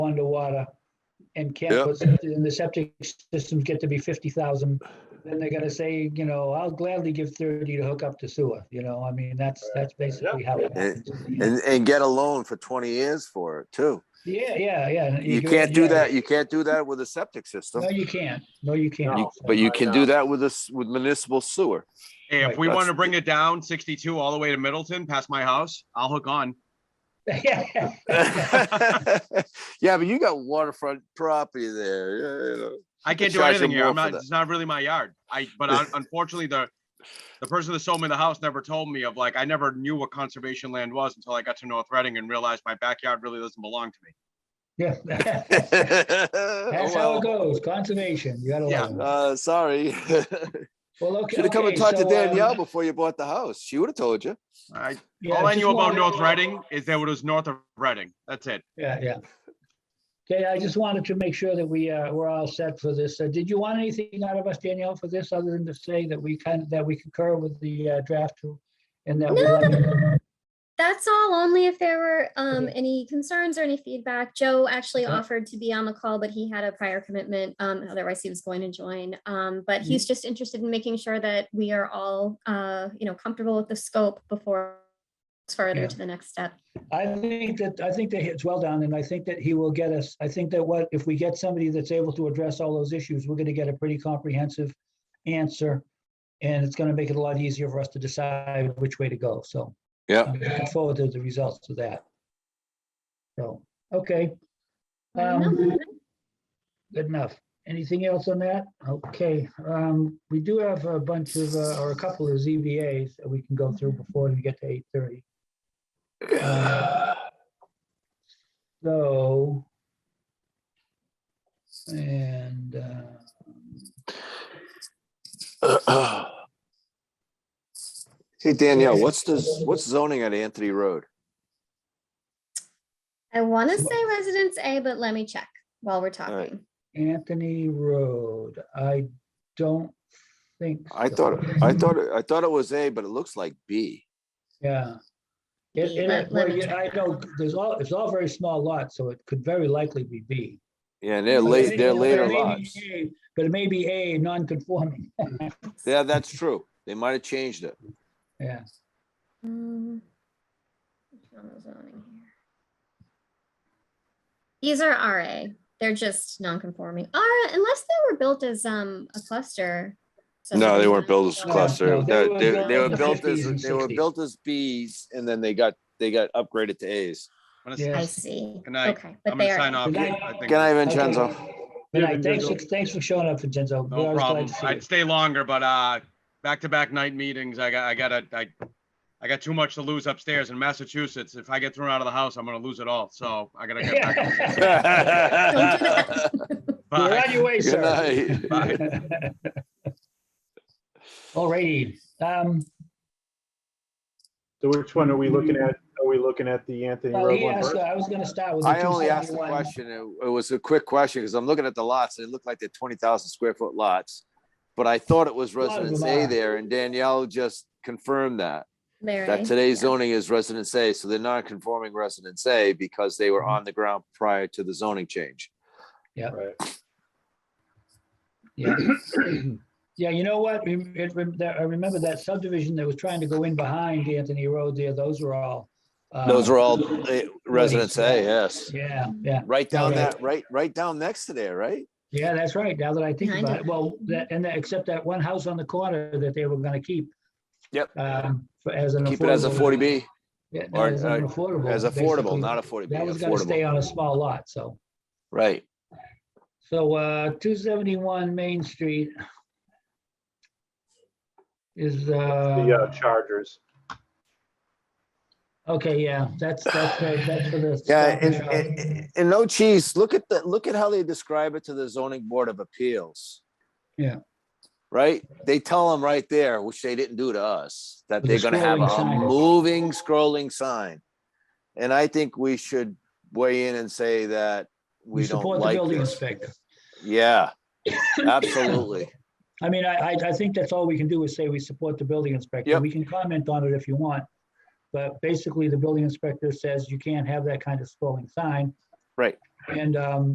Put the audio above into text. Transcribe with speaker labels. Speaker 1: underwater and can't
Speaker 2: Yep.
Speaker 1: put, and the septic systems get to be fifty thousand, then they're gonna say, you know, I'll gladly give thirty to hook up to sewer, you know, I mean, that's, that's basically how it happens.
Speaker 2: and, and get a loan for twenty years for it too.
Speaker 1: Yeah, yeah, yeah.
Speaker 2: You can't do
Speaker 1: yeah.
Speaker 2: that, you can't do that with a septic system,
Speaker 1: No, you can't. No, you can't.
Speaker 2: You- but you can do that with this, with municipal sewer.
Speaker 3: Hey, if
Speaker 1: Right,
Speaker 3: we
Speaker 2: that's-
Speaker 3: want to bring it down sixty-two all the way to Middleton, past my house, I'll hook on.
Speaker 1: Yeah.
Speaker 2: Yeah, but you got waterfront property there, yeah, you know.
Speaker 3: I can't do
Speaker 2: charge them
Speaker 3: anything here.
Speaker 2: more for
Speaker 3: I'm not,
Speaker 2: that.
Speaker 3: it's not really my yard. I, but un- unfortunately, the, the person that sold me the house never told me of like, I never knew what conservation land was until I got to North Reading and realized my backyard really doesn't belong to me.
Speaker 1: Yeah. That's how
Speaker 2: Oh,
Speaker 1: it goes. Conservation, you gotta
Speaker 3: Yeah.
Speaker 1: love
Speaker 2: well.
Speaker 1: it.
Speaker 2: Uh, sorry.
Speaker 1: Well, okay.
Speaker 2: Should have come and
Speaker 1: okay,
Speaker 2: talked to
Speaker 1: so, um,
Speaker 2: Danielle before you bought the house. She would have told you.
Speaker 3: I,
Speaker 1: yeah,
Speaker 3: all I
Speaker 1: just
Speaker 3: knew
Speaker 1: wanted-
Speaker 3: about North Reading is that it was north of Reading. That's it.
Speaker 1: Yeah, yeah. Okay, I just wanted to make sure that we, uh, we're all set for this. Uh, Did you want anything out of us, Danielle, for this, other than to say that we kind of, that we concur with the uh, draft too? And that we,
Speaker 4: No,
Speaker 1: like-
Speaker 4: That's all, only if there were um,
Speaker 1: Okay. Uh-huh.
Speaker 4: any concerns or any feedback. Joe actually
Speaker 1: Okay.
Speaker 4: offered to be on the call, but he had a prior commitment. um, Otherwise, he was going to join. Um, But
Speaker 1: Mm-hmm.
Speaker 4: he's just interested in making sure that we are all, uh, you know, comfortable with the scope before it's
Speaker 1: Yeah.
Speaker 4: further to the next step.
Speaker 1: I think that, I think that it's well done, and I think that he will get us, I think that what, if we get somebody that's able to address all those issues, we're gonna get a pretty comprehensive answer. And it's gonna make it a lot easier for us to decide which way to go, so.
Speaker 2: Yeah.
Speaker 1: I'm looking forward to the results of that. So, okay. Um,
Speaker 4: Um,
Speaker 1: Good enough. Anything else on that? Okay, um, we do have a bunch of, uh, or a couple of ZBAs that we can go through before we get to eight thirty. So. And, uh,
Speaker 2: Hey Danielle, what's the, what's zoning at Anthony Road?
Speaker 4: I want to say Residence A, but let me check while we're
Speaker 2: right.
Speaker 4: talking.
Speaker 1: Anthony Road, I don't think.
Speaker 2: I
Speaker 1: so.
Speaker 2: thought, I thought, it- I thought it was A, but it looks like B.
Speaker 1: Yeah. It,
Speaker 4: Yeah,
Speaker 1: it,
Speaker 4: let- let
Speaker 1: well,
Speaker 4: me
Speaker 1: yeah, I know, there's all, it's all very small lots, so it could very likely be B.
Speaker 2: Yeah, and they're
Speaker 1: But it
Speaker 2: late,
Speaker 1: may-
Speaker 2: they're
Speaker 1: but it
Speaker 2: later
Speaker 1: may be
Speaker 2: lots.
Speaker 1: A- But it may be A, non-conforming,
Speaker 2: Yeah, that's true. They might have changed it.
Speaker 1: yeah.
Speaker 4: Um, on the zoning here. These are RA, they're just non-conforming, RA, unless they were built as um a cluster.
Speaker 2: No, they weren't
Speaker 4: subdivision.
Speaker 2: built as
Speaker 4: So-
Speaker 1: No, cluster.
Speaker 2: clusters.
Speaker 1: no,
Speaker 2: They,
Speaker 1: they were
Speaker 2: they- they
Speaker 4: built
Speaker 2: were
Speaker 4: in the
Speaker 2: built as,
Speaker 1: 50s and
Speaker 2: they were
Speaker 1: 60s.
Speaker 2: built as Bs and then they got, they got upgraded to As.
Speaker 3: I'm gonna-
Speaker 1: Yeah.
Speaker 4: I see,
Speaker 3: Good night.
Speaker 4: okay,
Speaker 3: I'm
Speaker 4: but
Speaker 3: gonna
Speaker 4: they
Speaker 3: sign
Speaker 4: are,
Speaker 3: off.
Speaker 1: Good
Speaker 3: I
Speaker 1: night.
Speaker 3: think-
Speaker 2: Can I,
Speaker 1: Okay.
Speaker 2: Vincenzo?
Speaker 1: Good night. Thanks, for- thanks for showing up, Vincenzo. We're
Speaker 3: No
Speaker 1: always glad
Speaker 3: problem.
Speaker 1: to see you.
Speaker 3: I'd stay longer, but, uh, back-to-back night meetings, I got, I gotta, I, I got too much to lose upstairs in Massachusetts. If I get thrown out of the house, I'm gonna lose it all. So I gotta get back.
Speaker 1: You're
Speaker 2: Good
Speaker 3: Bye.
Speaker 1: on your way, sir.
Speaker 2: night.
Speaker 3: Bye.
Speaker 1: Alrighty, um,
Speaker 5: So which one are we looking at? Are we looking at the Anthony
Speaker 1: well,
Speaker 5: Road
Speaker 1: he
Speaker 5: one
Speaker 1: asked, uh,
Speaker 5: first?
Speaker 1: I was gonna start with. the
Speaker 2: I only asked the
Speaker 1: 271.
Speaker 2: question, it it was a quick question, because I'm looking at the lots, and it looked like they're twenty thousand square foot lots. But I thought it was
Speaker 1: lot of
Speaker 2: residence
Speaker 1: them
Speaker 2: A
Speaker 1: are.
Speaker 2: there, and Danielle just confirmed that,
Speaker 4: they're.
Speaker 2: that today's zoning is residence A, so they're non-conforming residence A because they were
Speaker 1: Mm-hmm.
Speaker 2: on the ground prior to the zoning change.
Speaker 5: Right.
Speaker 1: Yeah. Yeah, you know what? Rem- it rem- that- I remember that subdivision that was trying to go in behind Anthony Road there, those were all. uh,
Speaker 2: Those were all eh, residence A, yes.
Speaker 1: Yeah, yeah,
Speaker 2: Right down
Speaker 1: Okay.
Speaker 2: that, right, right down next to there, right?
Speaker 1: yeah, that's right. Now that I Mm-hmm. think
Speaker 4: Behind
Speaker 1: about
Speaker 4: it.
Speaker 1: it, well, that, and that, except that one house on the corner that they were gonna keep.
Speaker 2: Yep.
Speaker 1: Um, for, as an.
Speaker 2: Keep it as a
Speaker 1: affordable-
Speaker 2: forty B,
Speaker 1: Yeah,
Speaker 2: or,
Speaker 1: as an
Speaker 2: uh,
Speaker 1: affordable.
Speaker 2: as affordable,
Speaker 1: basically.
Speaker 2: not a forty B,
Speaker 1: That was gonna stay
Speaker 2: affordable,
Speaker 1: on a small lot, so.
Speaker 2: right?
Speaker 1: So uh, 271 Main Street is,
Speaker 5: The
Speaker 1: uh,
Speaker 5: uh, Chargers.
Speaker 1: okay, yeah, that's, that's, right, that's for the. uh,
Speaker 2: Yeah,
Speaker 1: stop
Speaker 2: and,
Speaker 1: shop.
Speaker 2: and- and no cheese, look at the, look at how they describe it to the zoning board of appeals.
Speaker 1: Yeah.
Speaker 2: Right? They tell them right there, which they didn't do to us, that
Speaker 1: With
Speaker 2: they're
Speaker 1: the
Speaker 2: gonna have
Speaker 1: scrolling sign.
Speaker 2: a moving scrolling sign. And I think we should weigh in and say that
Speaker 1: We
Speaker 2: we don't
Speaker 1: support the
Speaker 2: like
Speaker 1: building
Speaker 2: this.
Speaker 1: inspector.
Speaker 2: Yeah, absolutely.
Speaker 1: I mean, I, I, I think that's all we can do is say we support the building inspector.
Speaker 2: Yep.
Speaker 1: We can comment on it if you want. But basically, the building inspector says you can't have that kind of scrolling sign.
Speaker 2: Right.
Speaker 1: And um,